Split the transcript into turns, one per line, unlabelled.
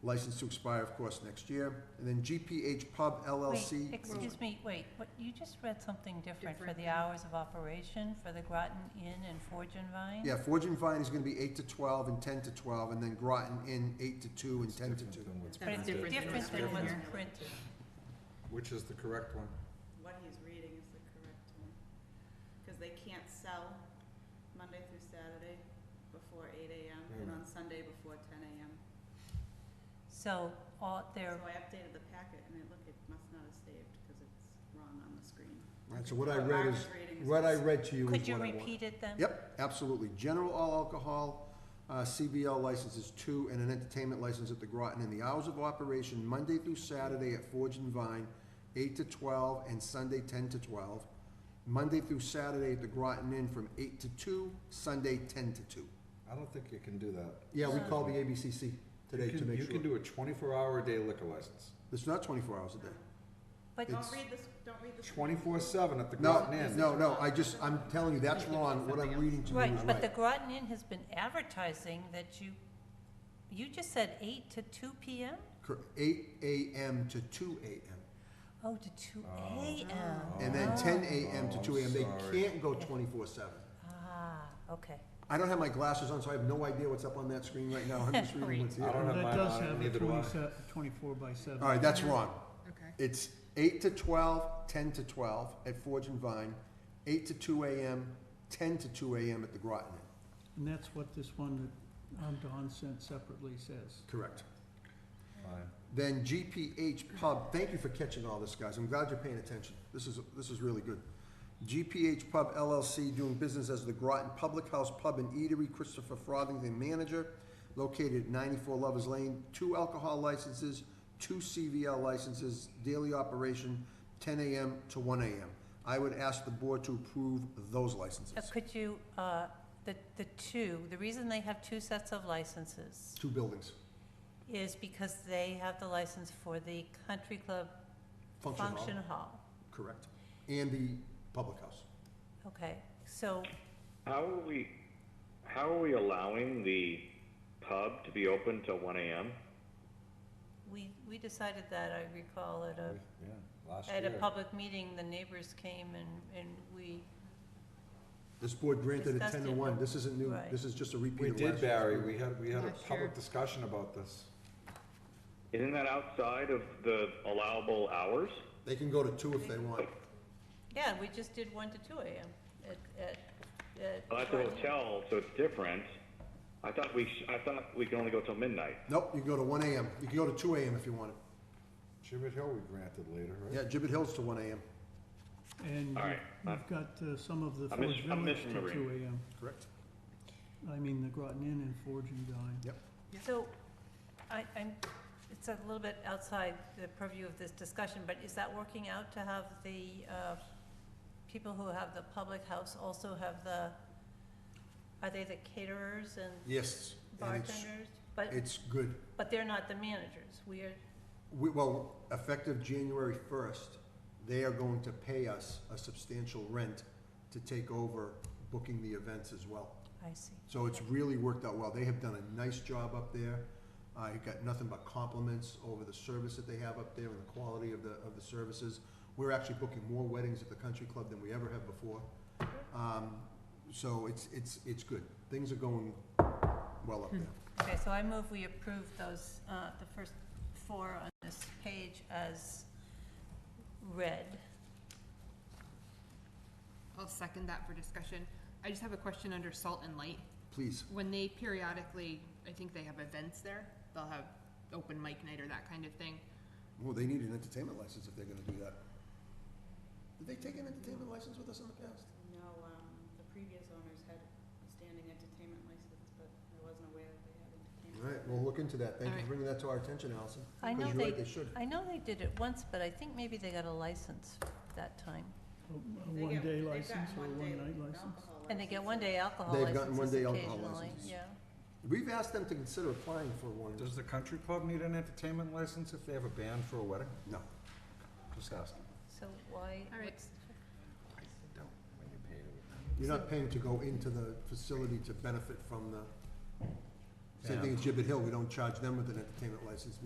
License to expire, of course, next year. And then GPH Pub LLC.
Wait, excuse me, wait, what, you just read something different for the
Different.
hours of operation for the Groton Inn and Forge and Vine?
Yeah, Forge and Vine is gonna be eight to twelve and ten to twelve, and then Groton Inn, eight to two and ten to two.
But it's different than
Different
what's
than
written
what's
here.
printed.
Which is the correct one?
what he's reading is the correct one. Because they can't sell Monday through Saturday before eight AM and
Hmm.
Mm.
on Sunday before ten AM.
So, all,
So
they're,
I updated the packet and it looked, it must not have saved because it's wrong on the screen.
Alright, so what I read
Mark
is,
reading is
what I
what's-
read to you is
could you
what I want.
repeat it then?
Yep, absolutely. General all alcohol, uh, CBL licenses two, and an entertainment license at the Groton. And the hours of operation, Monday through Saturday at Forge and Vine, eight to twelve, and Sunday ten to twelve. Monday through Saturday at the Groton Inn from eight to two, Sunday ten to two.
I don't think you can do that.
Yeah, we
Uh,
called the ABCC today
You
to
can-
make
You can
sure.
do a twenty-four hour a day liquor license,
It's not twenty-four hours a day.
But
It's-
Don't read this, don't read this.
twenty-four seven at the
No,
Groton Inn.
no, no, I just, I'm telling you, that's wrong. What I'm reading to you is
Right, but the
right.
Groton Inn has been advertising that you, you just said eight to two PM?
Cor- Eight AM to two AM.
Oh, to two
Oh.
AM.
And then
Oh.
ten AM to
Oh,
two AM, they
sorry.
can't go twenty-four seven.
Ah, okay.
I don't have my glasses on, so I have no idea what's up on that screen right now, I'm just reading what's
I don't
here.
have
That
mine
does
on,
have a
neither do I.
27 24 by seven.
Alright, that's wrong.
Okay.
It's eight to twelve, ten to twelve at Forge and Vine, eight to two AM, ten to two AM at the Groton Inn.
And that's what this one that um, Don sent separately says.
Correct.
Fine.
Then GPH Pub, thank you for catching all this, guys, I'm glad you're paying attention, this is, this is really good. GPH Pub LLC doing business as the Groton Public House Pub and Eatery, Christopher Frothingham, manager, located at ninety-four Lovers Lane, two alcohol licenses, two CVL licenses, daily operation, ten AM to one AM. I would ask the board to approve those licenses.
Uh, Could you, uh, the, the two, the reason they have two sets of licenses
Two buildings,
is because they have the license for the country club
function hall,
function hall.
correct, and the public house.
Okay, so,
How are we, how are we allowing the pub to be open till one AM?
we, we decided that, I recall, at a,
Yeah, last
at a
year.
public meeting, the neighbors came and, and we,
This board granted a
Discussed
ten to
it.
one, this isn't new,
Right.
this is just a repeat
We
of last year's.
did, Barry, we had, we had a
Last year.
public discussion about this.
Isn't that outside of the allowable hours?
They can go to two if they want.
yeah, we just did one to two AM at, at, at.
Well, that's a hotel, so it's different. I thought we, sh- I thought we could only go till midnight.
Nope, you can go to one AM. You can go to two AM if you want it.
Gibbet Hill we granted later,
Yeah,
right?
Gibbet Hill's to one AM,
And
All
you-
right,
you've got uh, some of the
I'm
Forge
mis- I'm
Village to
misremembering.
two AM.
correct?
I mean, the Groton Inn and Forge and Dine.
Yep.
So, I, I'm, it's a little bit outside the purview of this discussion, but is that working out to have the, uh, people who have the public house also have the, are they the caterers and
Yes. and it's-
bartenders? But,
It's good.
but they're not the managers, we are,
We, well, effective January first, they are going to pay us a substantial rent to take over booking the events as well.
I see.
So it's really worked out well. They have done a nice job up there. I got nothing but compliments over the service that they have up there and the quality of the, of the services. We're actually booking more weddings at the country club than we ever have before. Um, so it's, it's, it's good. Things are going well
Hmm.
up there.
Okay, so I move we approve those, uh, the first four on this page as read.
I'll second that for discussion. I just have a question under salt and light.
Please,
When they periodically, I think they have events there, they'll have open mic night or that kind of thing.
well, they need an entertainment license if they're gonna do that. Did they take an entertainment license with us in the past?
No, um, the previous owners had a standing entertainment license, but I wasn't aware that they had entertainment.
All right, we'll look into that. Thank you for bringing that to our attention, Allison.
I know
Because you're right,
they-
They should.
I know they did it once, but I think maybe they got a license that time.
A- A
They get-
one-day
they've got
license or a
one-day
one-night license.
alcohol
And they get
licenses.
one day alcohol
They've gotten
licenses
one-day alcohol
occasionally,
licenses.
yeah.
We've asked them to consider applying for one.
Does the country club need an entertainment license if they have a band for a wedding?
No.
Just asking.
So why,
All right.
what's,
I don't, when you pay it.
You're not paying to go into the facility to benefit from the, Same thing as Gibbet Hill, we don't charge them with an entertainment license.